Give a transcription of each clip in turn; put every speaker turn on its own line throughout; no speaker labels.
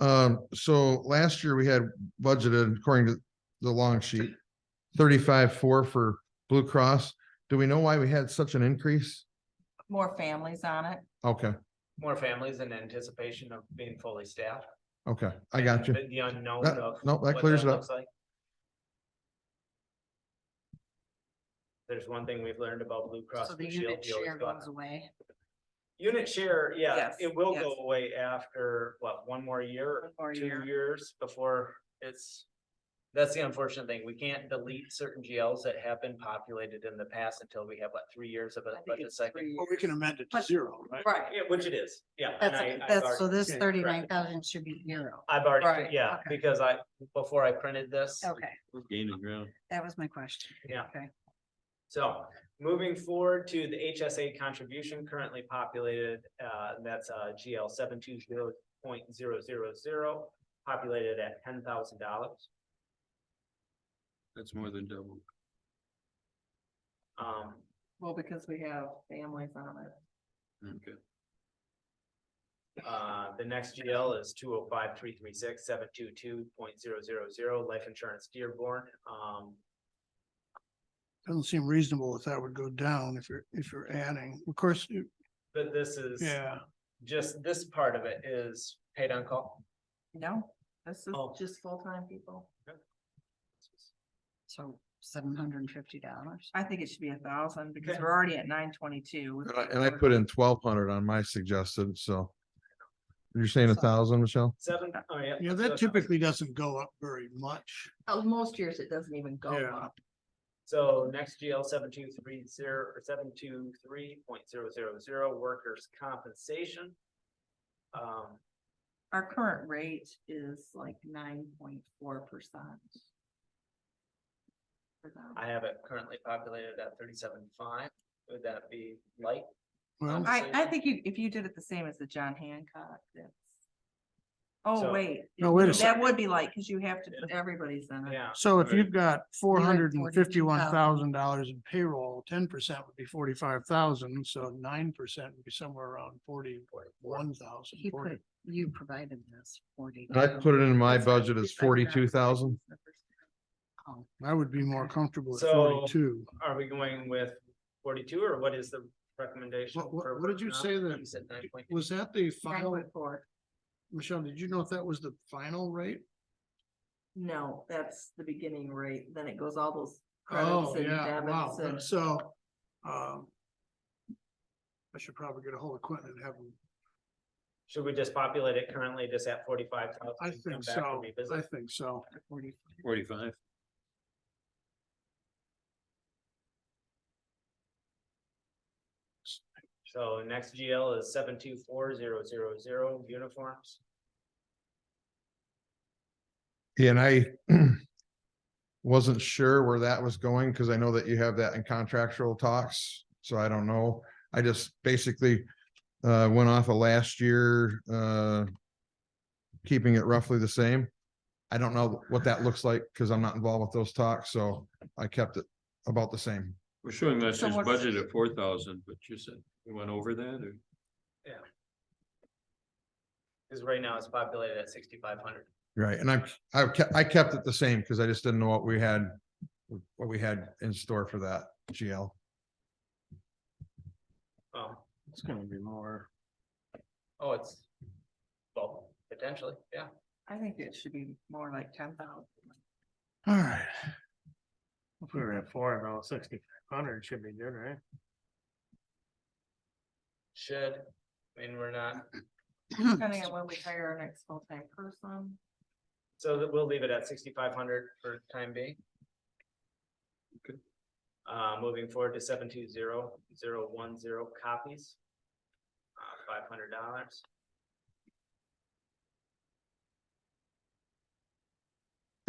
Um, so last year we had budgeted, according to the long sheet, thirty-five, four for Blue Cross. Do we know why we had such an increase?
more families on it.
Okay,
more families in anticipation of being fully staffed.
okay, I got you.
And The unknown
That-
of.
no, that
what
clears it up.
looks like. There's one thing we've learned about Blue Cross
So the
Blue Shield.
unit
you always
share
go-
goes away.
Unit share, yeah,
Yes,
it will
yes.
go away after, what, one more year,
One more
two
year.
years before it's. That's the unfortunate thing. We can't delete certain GLs that have been populated in the past until we have, what, three years of a
I think
budget
it's
cycle?
three
Well, we can
years.
amend it to
But-
zero, right?
Right,
Yeah, which it is, yeah. and I-
that's,
I've
that's,
already-
so this
Okay, correct.
thirty-nine thousand should be zero.
I've
Right,
already, yeah,
okay.
because I, before I printed this,
Okay,
Gaining ground.
that was my question.
Yeah.
Okay.
So moving forward to the HSA contribution currently populated, uh, that's, uh, GL seven two zero point zero zero zero, populated at ten thousand dollars.
That's more than double.
Um,
Well, because we have families on it.
Okay.
uh, the next GL is two oh five three three six seven two two point zero zero zero, life insurance Dearborn. Um,
Doesn't seem reasonable that that would go down if you're, if you're adding. Of course, you-
but this is
yeah,
just, this part of it is paid on call.
No, this is
Oh.
just full-time people.
So seven hundred and fifty dollars.
I think it should be a thousand because
Okay.
we're already at nine twenty-two.
And I- And I put in twelve hundred on my suggested, so. You're saying a thousand, Michelle?
Seven, oh yeah.
yeah, that typically doesn't go up very much.
Most years it doesn't even go
Yeah.
up.
So next GL seven two three zero, or seven two three point zero zero zero, workers' compensation. Um,
Our current rate is like nine point four percent.
I have it currently populated at thirty-seven five, would that be light?
Well,
I, I think you, if you did it the same as the John Hancock, that's. Oh,
So-
wait,
no, wait a
that
second.
would be like, cause you have to put everybody's in it.
Yeah,
So if you've got four hundred and fifty-one
$42,000.
thousand dollars in payroll, ten percent would be forty-five thousand, so nine percent would be somewhere around forty-one thousand.
He put, you provided this forty.
I put it in my budget as forty-two thousand.
Oh,
I would be more comfortable at
So-
forty-two.
are we going with forty-two or what is the recommendation?
What- what-
for
what did you
uh,
workers'
say
comp?
that-
You said nine point,
Was that the
Nine
final,
point four,
Michelle, did you know if that was the final rate?
no, that's the beginning rate, then it goes all those credits
Oh,
and
yeah,
debits
wow,
and.
so, um. I should probably get a hold of Quentin and have him,
should we just populate it currently just at forty-five thousand?
I think so, I think so.
Forty-five.
So next GL is seven two four zero zero zero, uniforms.
And I wasn't sure where that was going because I know that you have that in contractual talks, so I don't know. I just basically uh went off of last year, uh keeping it roughly the same. I don't know what that looks like because I'm not involved with those talks, so I kept it about the same.
We're showing last
So
year's
what's-
budget at four thousand, but you said you went over that or?
Cause right now it's populated at sixty-five hundred.
Right, and I, I kept, I kept it the same because I just didn't know what we had, what we had in store for that GL.
Oh,
It's gonna be more.
oh, it's, well, potentially, yeah.
I think it should be more like ten thousand.
All right,
If we were at four, though, sixty-five hundred should be good, right?
Should, I mean, we're not,
Hmm.
Depending on when we hire our next full-time person.
so that we'll leave it at sixty-five hundred for time being.
Okay.
Uh, moving forward to seven two zero zero one zero copies. Uh, five hundred dollars.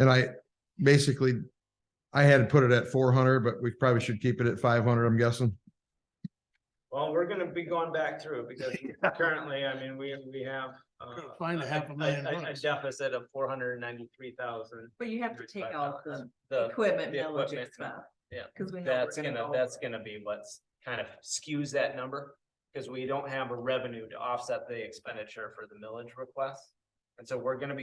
And I basically, I had put it at four hundred, but we probably should keep it at five hundred, I'm guessing.
Well, we're gonna be going back through because currently, I mean, we, we have. uh,
Gotta find a half a million
A
bucks.
deficit of four hundred and ninety-three thousand.
But you have to take out the
The
equipment,
the
millage
equipment,
expense.
yeah,
Cause we know.
That's
we're
gonna,
go
that's
over it.
gonna be what's kind of skews that number, because we don't have a revenue to offset the expenditure for the millage request. And so we're gonna be